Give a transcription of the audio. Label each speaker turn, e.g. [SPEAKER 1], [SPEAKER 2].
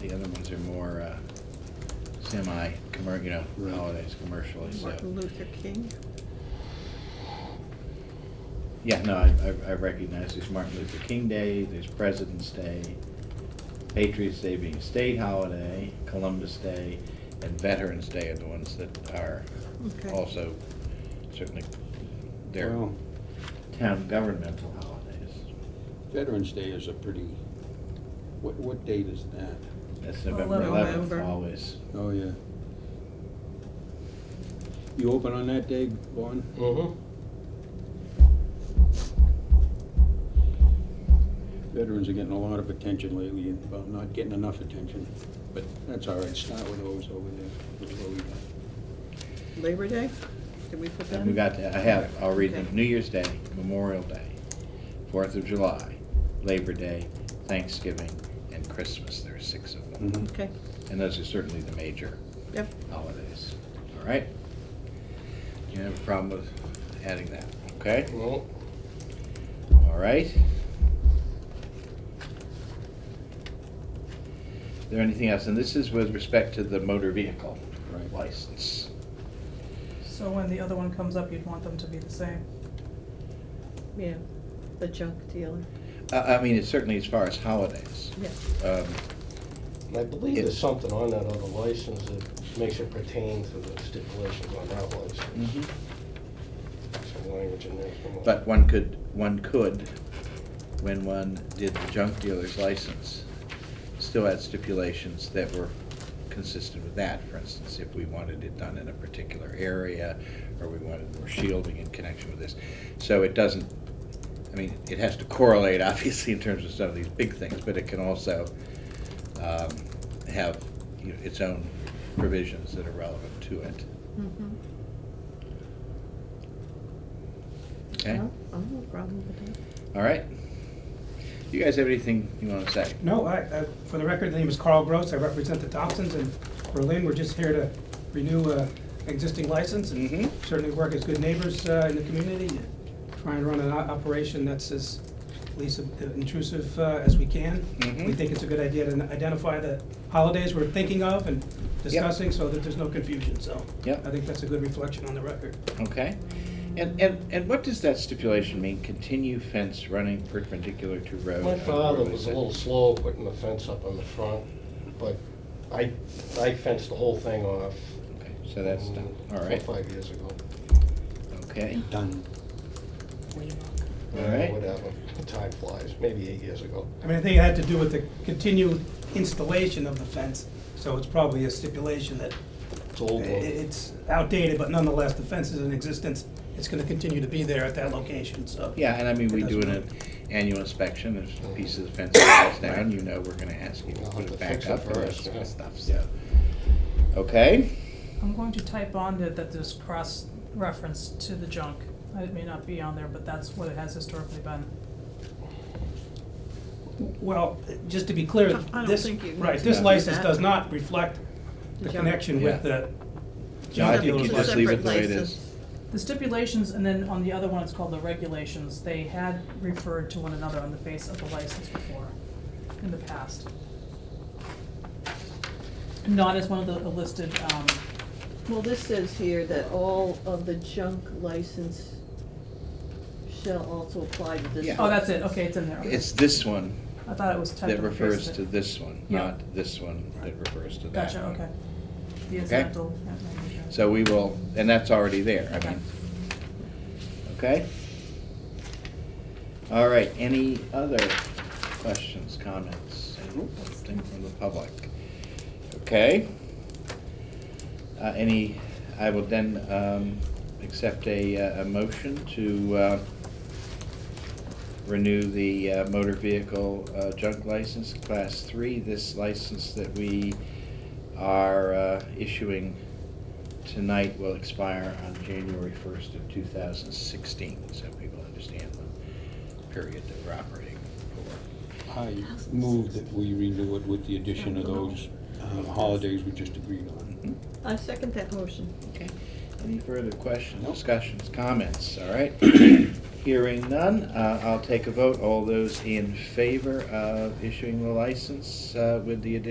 [SPEAKER 1] The other ones are more uh, semi, commer, you know,
[SPEAKER 2] Right.
[SPEAKER 1] holidays commercially, so.
[SPEAKER 3] Martin Luther King.
[SPEAKER 1] Yeah, no, I, I- I recognize there's Martin Luther King Day, there's President's Day, Patriots Day being a state holiday, Columbus Day, and Veterans Day are the ones that are
[SPEAKER 3] Okay.
[SPEAKER 1] also certainly their
[SPEAKER 2] Well,
[SPEAKER 1] town governmental holidays.
[SPEAKER 2] Veterans Day is a pretty, what, what date is that?
[SPEAKER 1] That's November eleventh,
[SPEAKER 3] November.
[SPEAKER 1] always.
[SPEAKER 2] Oh, yeah. You open on that day, Vaughn?
[SPEAKER 4] Mm-hmm.
[SPEAKER 2] Veterans are getting a lot of attention lately, and, well, not getting enough attention, but that's all right, start with those over there. Those over there.
[SPEAKER 3] Labor Day? Did we put that?
[SPEAKER 1] And we
[SPEAKER 3] in?
[SPEAKER 1] got, to- I have, I'll read them,
[SPEAKER 3] Okay.
[SPEAKER 1] New Year's Day, Memorial Day, Fourth of July, Labor Day, Thanksgiving, and Christmas, there are six of them.
[SPEAKER 2] Mhm.
[SPEAKER 3] Okay,
[SPEAKER 1] And those are certainly the major
[SPEAKER 3] yep,
[SPEAKER 1] holidays, all right? Do you have a problem with adding that, okay?
[SPEAKER 4] No,
[SPEAKER 1] All right. Is there anything else? And this is with respect to the motor vehicle
[SPEAKER 2] Right.
[SPEAKER 1] license.
[SPEAKER 5] So when the other one comes up, you'd want them to be the same.
[SPEAKER 3] yeah, the junk dealer,
[SPEAKER 1] I, I mean, it's certainly as far as holidays.
[SPEAKER 3] yeah.
[SPEAKER 1] Um,
[SPEAKER 4] And I believe there's something on that other license that makes it pertain to the stipulations on that license. Some language in there. somewhere.
[SPEAKER 1] But one could, one could, when one did the junk dealer's license, still had stipulations that were consistent with that. For instance, if we wanted it done in a particular area, or we wanted more shielding in connection with this. So it doesn't, I mean, it has to correlate, obviously, in terms of some of these big things, but it can also um, have you know, its own provisions that are relevant to it. Mm-hmm.
[SPEAKER 3] Mhm.
[SPEAKER 1] Okay?
[SPEAKER 3] Well, I don't have a Oh, problem with that.
[SPEAKER 1] All right? You guys have anything you want to say?
[SPEAKER 6] No, I, I- for the record, the name is Carl Gross, I represent the Thompsons in Berlin. We're just here to renew an existing license and
[SPEAKER 1] Mhm.
[SPEAKER 6] certainly work as good neighbors uh, in the community, and try and run an o- operation that's as least intrusive uh, as we can.
[SPEAKER 1] Mhm.
[SPEAKER 6] We think it's a good idea to identify the holidays we're thinking of and discussing so that there's no confusion, so.
[SPEAKER 1] Yep.
[SPEAKER 6] I think that's a good reflection on the record.
[SPEAKER 1] Okay. And, and, and what does that stipulation mean? Continue fence running perpendicular to road?
[SPEAKER 4] My
[SPEAKER 1] on
[SPEAKER 4] father
[SPEAKER 1] roadway
[SPEAKER 4] was a
[SPEAKER 1] side.
[SPEAKER 4] little slow putting the fence up on the front, but I, I fenced the whole thing off.
[SPEAKER 1] Okay, So that's done,
[SPEAKER 4] mm,
[SPEAKER 1] all right,
[SPEAKER 4] Four, five years ago.
[SPEAKER 1] okay,
[SPEAKER 2] Done.
[SPEAKER 1] All
[SPEAKER 4] Uh,
[SPEAKER 1] right.
[SPEAKER 4] Whatever, time flies, maybe eight years ago.
[SPEAKER 6] I mean, I think it had to do with the continued installation of the fence, so it's probably a stipulation that
[SPEAKER 4] It's old.
[SPEAKER 6] It-
[SPEAKER 4] one.
[SPEAKER 6] It's outdated, but nonetheless, the fence is in existence. It's gonna continue to be there at that location, so.
[SPEAKER 1] yeah, and I mean,
[SPEAKER 6] It
[SPEAKER 1] we do an
[SPEAKER 6] doesn't matter.
[SPEAKER 1] annual inspection, if a piece of the fence falls down, you know, we're gonna ask you to
[SPEAKER 4] We'll
[SPEAKER 1] put
[SPEAKER 4] have
[SPEAKER 1] it
[SPEAKER 4] to
[SPEAKER 1] back
[SPEAKER 4] fix it
[SPEAKER 1] up and that
[SPEAKER 4] first,
[SPEAKER 1] sort
[SPEAKER 4] yeah.
[SPEAKER 1] of stuff, so. Okay,
[SPEAKER 5] I'm going to type on there that there's cross-reference to the junk. It may not be on there, but that's what it has historically been.
[SPEAKER 6] Well, just to be clear,
[SPEAKER 3] I- I don't
[SPEAKER 6] this,
[SPEAKER 3] think you need
[SPEAKER 6] right,
[SPEAKER 3] to
[SPEAKER 6] this
[SPEAKER 1] do
[SPEAKER 6] license
[SPEAKER 3] that.
[SPEAKER 6] does not reflect the
[SPEAKER 3] Junk.
[SPEAKER 6] connection with
[SPEAKER 1] Yeah.
[SPEAKER 6] the
[SPEAKER 1] no, I
[SPEAKER 6] junk
[SPEAKER 1] think you
[SPEAKER 6] dealer's
[SPEAKER 3] It's a
[SPEAKER 1] just leave it
[SPEAKER 3] separate
[SPEAKER 1] the way it
[SPEAKER 3] license.
[SPEAKER 1] is.
[SPEAKER 5] The stipulations, and then on the other one, it's called the regulations, they had referred to one another on the face of the license before, in the past. Not as one of the listed, um,
[SPEAKER 3] Well, this says here that all of the junk license shall also apply to this.
[SPEAKER 1] Yeah.
[SPEAKER 5] oh, that's it, okay, it's in there, okay.
[SPEAKER 1] It's this one
[SPEAKER 5] I thought it was typed
[SPEAKER 1] that
[SPEAKER 5] on the face
[SPEAKER 1] refers
[SPEAKER 5] of
[SPEAKER 1] to
[SPEAKER 5] it.
[SPEAKER 1] this one,
[SPEAKER 5] Yeah.
[SPEAKER 1] not this one that refers to that
[SPEAKER 5] Gotcha,
[SPEAKER 1] one.
[SPEAKER 5] okay. The
[SPEAKER 1] Okay.
[SPEAKER 5] incidental, yeah, language, yeah.
[SPEAKER 1] So we will, and that's already there, I
[SPEAKER 5] Okay.
[SPEAKER 1] mean. Okay? All right, any other questions, comments, anything from the public? Okay? Uh, any, I will then, um, accept a, uh, a motion to, uh, renew the uh, motor vehicle uh, junk license, class three, this license that we are uh, issuing tonight will expire on January first of two thousand sixteen, so people understand the period that we're operating for.
[SPEAKER 2] I move that we renew it with the addition of those um, holidays we just agreed on.
[SPEAKER 1] Mhm.
[SPEAKER 3] I second that motion.
[SPEAKER 1] Okay, any further questions,
[SPEAKER 2] Nope.
[SPEAKER 1] discussions, comments, all right? Hearing none, uh, I'll take a vote, all those in favor of issuing the license uh, with the addition